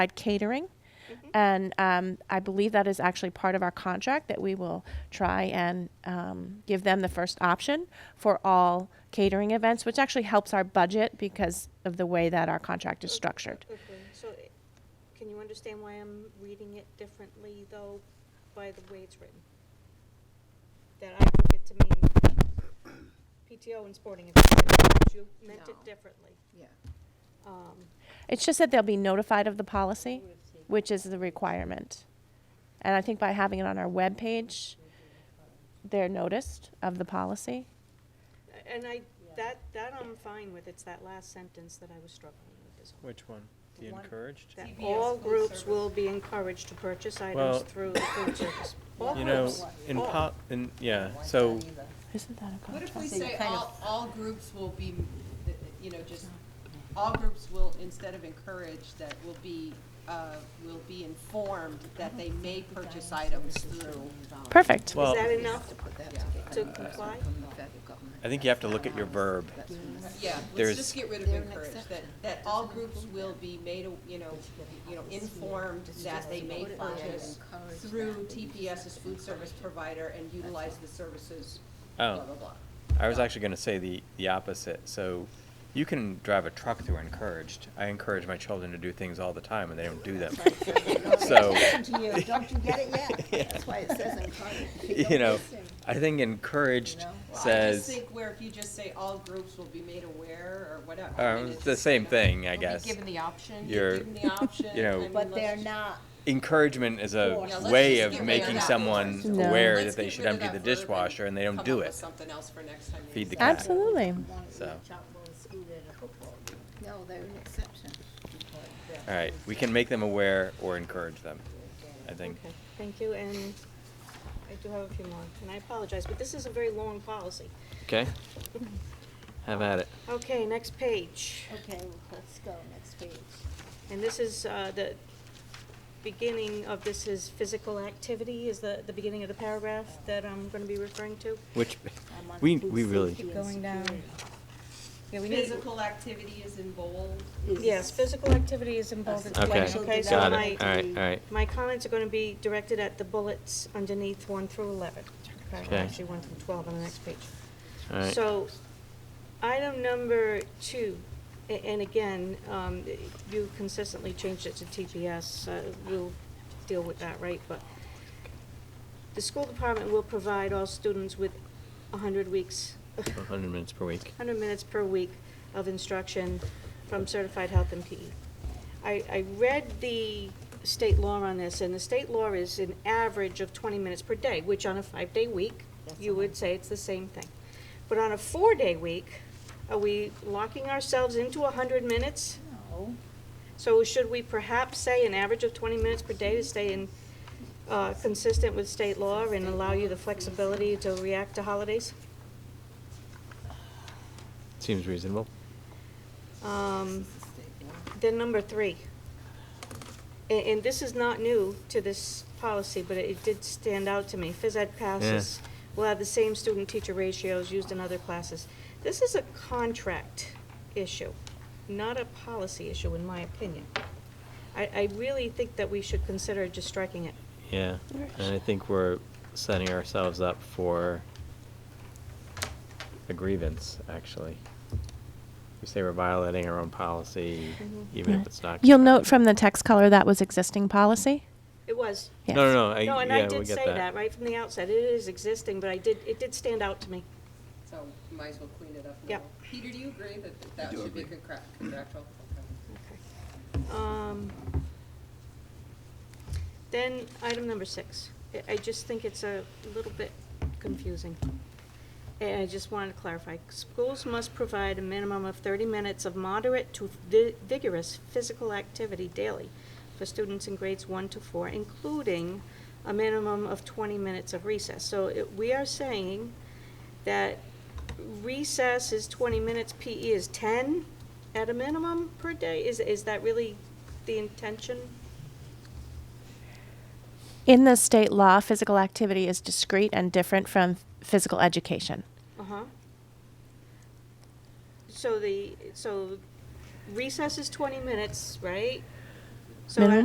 provide catering. Mm-hmm. And um, I believe that is actually part of our contract that we will try and um, give them the first option for all catering events, which actually helps our budget because of the way that our contract is structured. Okay, so i- can you understand why I'm reading it differently, though, by the way it's written? That I took it to mean PTO and sporting events, but you meant it No. differently. Yeah. Um, It's just that they'll be notified of the policy, which is the requirement. And I think by having it on our webpage, they're noticed of the policy. a- And I, that, that I'm fine with, it's that last sentence that I was struggling with as well. Which one? The The one- encouraged? That TBS all food groups service. will be encouraged to purchase Well, items through the food service. All You know, groups. in All. pop, in, yeah, Don't want so, that either. Isn't that a What if we contract? So you say kind all, all groups will be, uh, you know, just, all groups will, instead of encourage, that will be, uh, will be informed that they may purchase items through. Perfect. well, Is that enough Yeah. to comply? I think you have to look at your verb. Yeah, let's There's- just get rid of encourage, that, that all groups will be made, a- you know, you know, informed that they may purchase through TPS's food service provider and utilize the services, blah, Oh, blah, blah. I was actually gonna say the, the opposite, so you can drive a truck through encouraged. I encourage my children to do things all the time and they don't do them. So, Listen to you, don't you get it yet? That's why it says encourage. you know, I think encouraged Well, I just says, think where if you just say all groups will be made aware or whatever. I mean, um, it's the same you know, thing, I they'll be guess. Given the option. You're- Given the option. you know- I mean, But let's they're just- not, Encouragement is a Yeah, let's way just of get rid of making that someone word. No. aware Let's that they get should rid of empty that the verb and dishwasher and they don't come do up with it. something else for next time you Feed the use cat. that. Absolutely. So, no, they're an exception. all right, we can make them aware or encourage them, I think. Okay, thank you, and I do have a few more, and I apologize, but this is a very long policy. Okay. Have at it. Okay, next page, Okay, let's go, next page. and this is, uh, the beginning of this is physical activity, is the, the beginning of the paragraph that I'm gonna be referring to? Which, I'm on we, food we really, safety and Going down. security. Yeah, we need, Physical activity is in bold. Is- yes, physical activity is involved in Okay, selection, okay, so got it. my, All right, all right. my comments are gonna be directed at the bullets underneath one through eleven. Okay. Actually, one through twelve on the next page. So, item number two, a- and again, um, you consistently changed it to TPS, uh, we'll deal with that, right? But the school department will provide all students with hundred weeks, Hundred minutes per week. hundred minutes per week of instruction from certified health and PE. I, I read the state law on this, and the state law is an average of twenty minutes per day, which on a five-day week, you would say it's the same thing. But on a four-day week, are we locking ourselves into hundred minutes? No, So should we perhaps say an average of twenty minutes per day to stay in, uh, consistent with state law and allow you the flexibility to react to holidays? Seems reasonable. Um, Then number three, a- and, this is not new to this policy, but it did stand out to me, phys ed passes will have the same student-teacher ratios used in other classes. This is a contract issue, not a policy issue, in my opinion. I, I really think that we should consider just striking it. Yeah, and I think we're setting ourselves up for a grievance, actually. We say we're violating our own policy, Mm-hmm. even if it's not. You'll note from the text color that was existing policy. It was. Yes. No, no, no, Uh, I, No, and I yeah, we did say get that that. right from the outset, it is existing, but I did, it did stand out to me. So might as well clean it up now. Yep. Peter, do you agree that that should be contra- contractual? Okay. Um, Then, item number six. I- I just think it's a little bit confusing. And I just wanted to clarify. Schools must provide a minimum of 30 minutes of moderate to vi- vigorous physical activity daily for students in grades one to four, including a minimum of 20 minutes of recess. So it- we are saying that recess is 20 minutes, PE is 10 at a minimum per day? Is, is that really the intention? In the state law, physical activity is discrete and different from physical education. Uh-huh. So the, so recess is 20 minutes, right? So I-